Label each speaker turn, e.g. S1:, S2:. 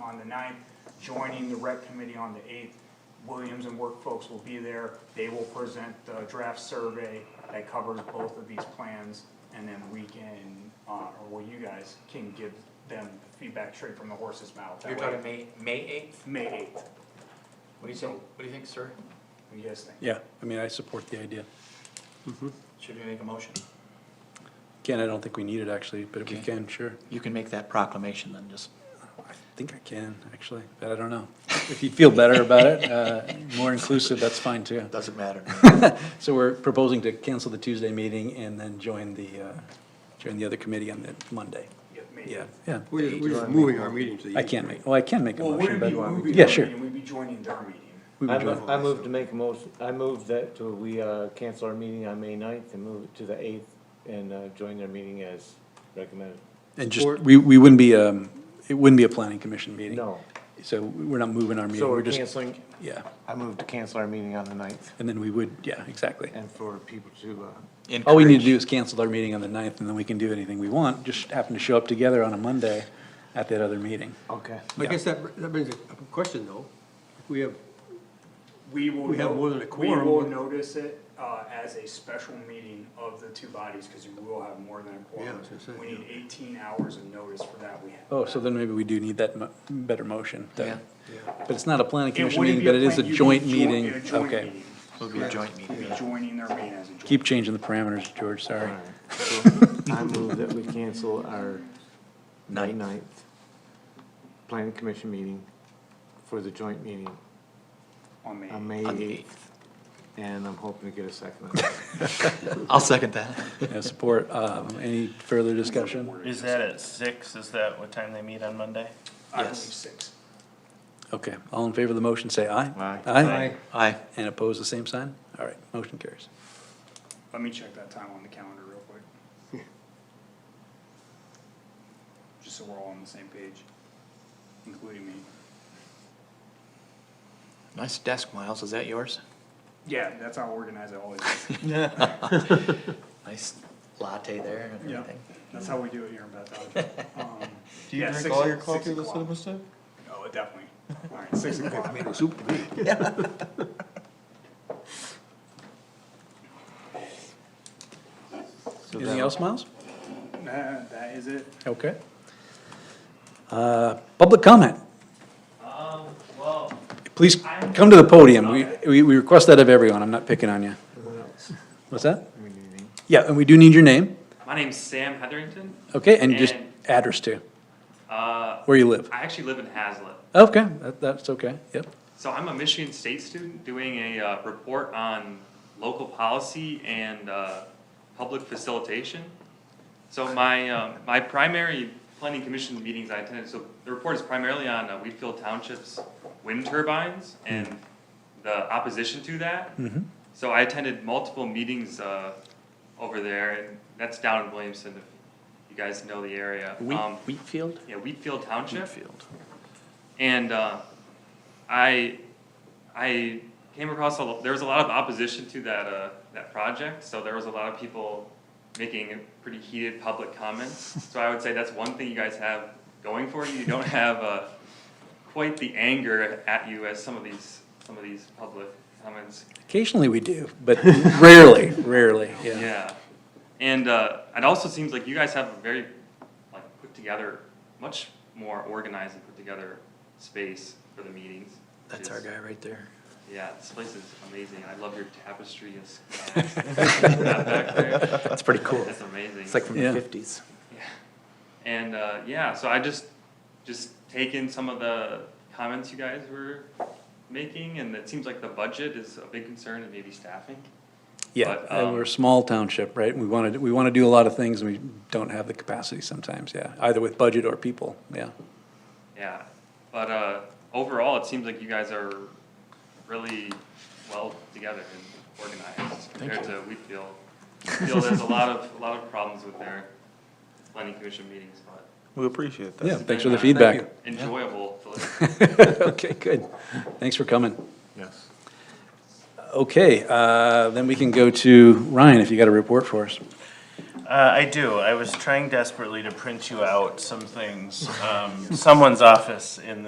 S1: on the 9th, joining the rec committee on the 8th. Williams and Work folks will be there. They will present the draft survey that covers both of these plans. And then we can, uh, or well, you guys can give them feedback straight from the horse's mouth. That
S2: You're
S1: way-
S2: talking May, May eighth?
S1: May 8th,
S2: What do you think, what do you think, sir?
S1: what do you guys think?
S3: Yeah, I mean, I support the idea.
S2: Should we make a motion?
S3: Again, I don't think we need it actually, but if we
S4: Okay.
S3: can, sure.
S4: You can make that proclamation then, just,
S3: I think I can, actually, but I don't know. If you feel better about it, uh, more inclusive, that's fine too.
S4: doesn't matter. to me.
S3: So we're proposing to cancel the Tuesday meeting and then join the, uh, join the other committee on the Monday.
S1: Yeah, May 8th.
S3: Yeah, yeah.
S5: We're just, we're just moving our meeting to the.
S3: I can't make, well, I can make a
S1: Well,
S3: motion,
S1: wouldn't
S3: but.
S1: be, would be.
S3: Yeah,
S1: our
S3: sure.
S1: meeting, We'd be joining their meeting.
S3: We
S6: I
S3: would join.
S6: move, I move to make a motion, I move that to- we uh, cancel our meeting on May 9th and move it to the 8th and uh, join their meeting as recommended.
S3: And just, we, we wouldn't be, um, it wouldn't be a planning commission meeting.
S6: No,
S3: So we're not moving our meeting,
S6: so
S3: we're
S6: we're
S3: just,
S6: canceling,
S3: yeah.
S6: I move to cancel our meeting on the 9th
S3: And then we would, yeah, exactly.
S6: and for people to, uh,
S3: All we need to do is cancel our meeting on the ninth, and then we can do anything we want, just happen to show up together on a Monday at that other meeting.
S6: okay.
S5: I guess that, that brings up a question though. If We have,
S1: We will.
S5: We have
S1: no-
S5: more than a quorum,
S1: We will
S5: but-
S1: notice it uh, as a special meeting of the two bodies, because we will have more than a
S5: Yeah, I
S1: quorum.
S5: was gonna say,
S1: We
S5: yeah.
S1: need eighteen hours of notice for that. We have.
S3: Oh, so then maybe we do need that mo- better motion. then.
S2: Yeah.
S3: But it's not a planning
S1: It
S3: commission
S1: wouldn't
S3: meeting,
S1: be a
S3: but it is a
S1: plan- you'd
S3: joint
S1: be join-
S3: meeting.
S1: a joint
S3: Okay.
S1: meeting.
S4: It'll be a joint meeting.
S1: We'll be joining their meeting as a joint.
S3: Keep changing the parameters, George,
S6: All
S3: sorry.
S6: right. So I move that we cancel our May
S4: Ninth.
S6: 9th planning commission meeting for the joint meeting
S1: On May.
S6: on May
S4: On the
S6: 8th. And I'm hoping to get a second. on that.
S4: I'll second that.
S3: Yeah, Support, um, any further discussion?
S7: Is that at six? Is that what time they meet on Monday?
S1: I believe
S4: Yes.
S1: six.
S3: Okay, all in favor of the motion, say aye.
S6: Aye.
S3: Aye?
S4: Aye.
S3: And oppose the same sign? All right, motion carries.
S1: Let me check that time on the calendar real quick. Just so we're all on the same page, including me.
S4: Nice desk, Miles, is that yours?
S1: Yeah, that's how organized I always is.
S4: Nice latte there and
S1: Yeah,
S4: everything.
S1: that's how we do it here in Bethel. Um,
S7: Do you
S1: yeah,
S7: drink
S1: six
S7: all your
S1: o-
S7: coffee
S1: six
S7: with
S1: o'clock.
S7: cinnamon stick?
S1: Oh, definitely. All right, six o'clock.
S5: soup to me.
S6: So
S3: Anything
S6: that'll-
S3: else, Miles?
S1: Nah, That is it.
S3: Okay. Uh, Public comment.
S7: Um, well,
S3: Please come to the podium. We, we we request that of everyone. I'm not picking on you. What's that? Yeah, and we do need your name,
S8: My name's Sam Hetherington.
S3: okay, and just
S8: And-
S3: address too,
S8: Uh,
S3: where you live.
S8: I actually live in Hazlet.
S3: Okay, that, that's okay, yep.
S8: So I'm a Michigan State student doing a uh, report on local policy and uh, public facilitation. So my, um, my primary planning commission meetings I attended, so the report is primarily on uh, Wheatfield Township's wind turbines and
S4: Mm-hmm.
S8: the opposition to that. So I attended multiple meetings uh, over there, and that's down in Williamson, if you guys know the area. Um,
S4: Wheatfield?
S8: Yeah, Wheatfield Township.
S4: Wheatfield.
S8: And uh, I, I came across, a lo- there was a lot of opposition to that, uh, that project, so there was a lot of people making pretty heated public comments. So I would say that's one thing you guys have going for you, you don't have uh, quite the anger at you as some of these, some of these public comments
S3: Occasionally we do, but rarely, rarely, yeah.
S8: yeah. And uh, it also seems like you guys have a very, like, put together, much more organized and put together space for the meetings. which
S4: That's our
S8: is-
S4: guy right there.
S8: Yeah, this place is amazing. I love your tapestry and sky. That back there,
S4: That's pretty cool.
S8: That's amazing.
S4: It's like from
S3: Yeah.
S4: the fifties.
S8: Yeah. And uh, yeah, so I just just take in some of the comments you guys were making, and it seems like the budget is a big concern, and maybe staffing.
S3: Yeah,
S8: But,
S3: and
S8: um,
S3: we're a small township, right? We wanna, do- we wanna do a lot of things and we don't have the capacity sometimes, yeah, either with budget or people, yeah.
S8: Yeah, but uh, overall, it seems like you guys are really well together and organized compared to Wheatfield. Wheatfield there's a lot of, a lot of problems with their planning commission meetings, but
S4: We appreciate
S3: Yeah, thanks for the
S8: Thank you.
S3: feedback.
S8: enjoyable to listen to.
S3: Okay, good. Thanks for coming.
S4: Yes.
S3: Okay, uh, then we can go to Ryan, if you got a report for us.
S7: Uh, I do. I was trying desperately to print you out some things. Um, someone's office in